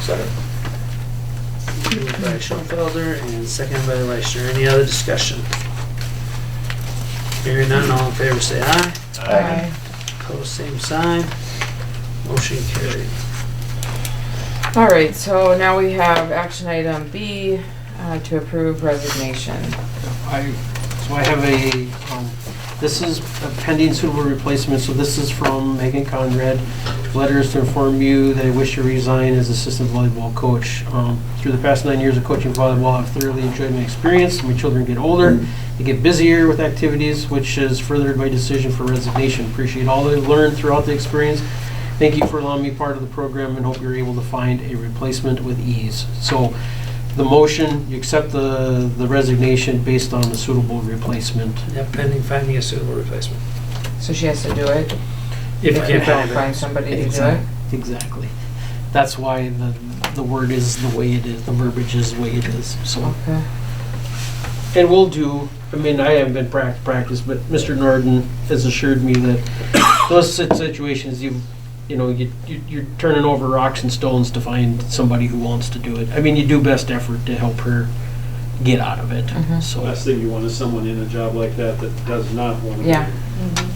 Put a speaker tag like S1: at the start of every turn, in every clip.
S1: Second. Moved by Schoenfelder and seconded by Leishner. Any other discussion? Hearing none, all in favor say aye.
S2: Aye.
S1: Opposed, same sign. Motion carried.
S2: All right, so now we have action item B, uh, to approve resignation.
S3: I, so I have a, um, this is a pending suitable replacement, so this is from Megan Conrad. Letters to inform you that I wish to resign as assistant volleyball coach. Um, Through the past nine years of coaching volleyball, I've thoroughly enjoyed my experience. My children get older, they get busier with activities, which has furthered my decision for resignation. Appreciate all I've learned throughout the experience. Thank you for allowing me part of the program and hope you're able to find a replacement with ease. So the motion, you accept the the resignation based on the suitable replacement.
S1: Yep, pending finding a suitable replacement.
S2: So she has to do it.
S1: If you can't
S2: don't
S1: find
S2: Find
S1: it.
S2: somebody to do it.
S3: Exact- Exactly. That's why the, the word is the way it is, the verbiage is the way it is, so.
S2: Okay.
S3: And we'll do, I mean, I haven't been prac- practiced, but Mr. Norton has assured me that those sit- situations, you, you know, you, you- you're turning over rocks and stones to find somebody who wants to do it. I mean, you do best effort to help her get out of it,
S2: Mhm.
S3: so.
S4: Last thing you want is someone in a job like that that does not want to. do it.
S2: Yeah.
S4: So,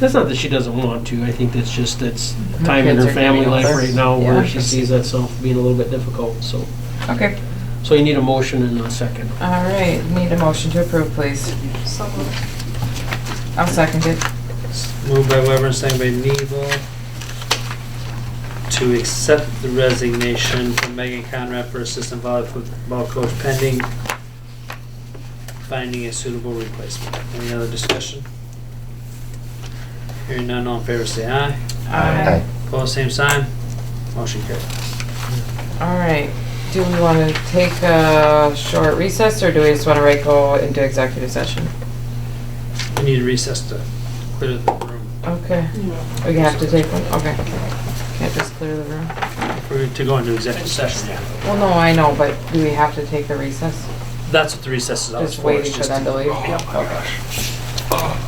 S3: That's not that she doesn't want to, I think that's just, that's the time in
S2: kids
S3: her
S2: are getting
S3: family life
S2: older.
S3: right now
S2: Yeah.
S3: where she sees that self being a little bit difficult, so.
S2: Okay,
S3: So you need a motion and a second.
S2: all right, need a motion to approve, please. I'll second it.
S1: Moved by Weber and seconded by Neville to accept the resignation from Megan Conrad for assistant volleyball coach pending finding a suitable replacement. Any other discussion? Hearing none, all in favor say aye.
S2: Aye.
S1: Opposed, same sign. Motion carried.
S2: All right, do we want to take a short recess, or do we just want to right go into executive session?
S1: We need to recess to clear the room.
S2: Okay, we have to take one, okay. Can't just clear the room?
S1: We're to go into executive session, yeah.
S2: Well, no, I know, but do we have to take the recess?
S1: That's what the recess is all for.
S2: Just waiting
S1: is
S2: for them to leave?
S1: Yep.
S2: Okay.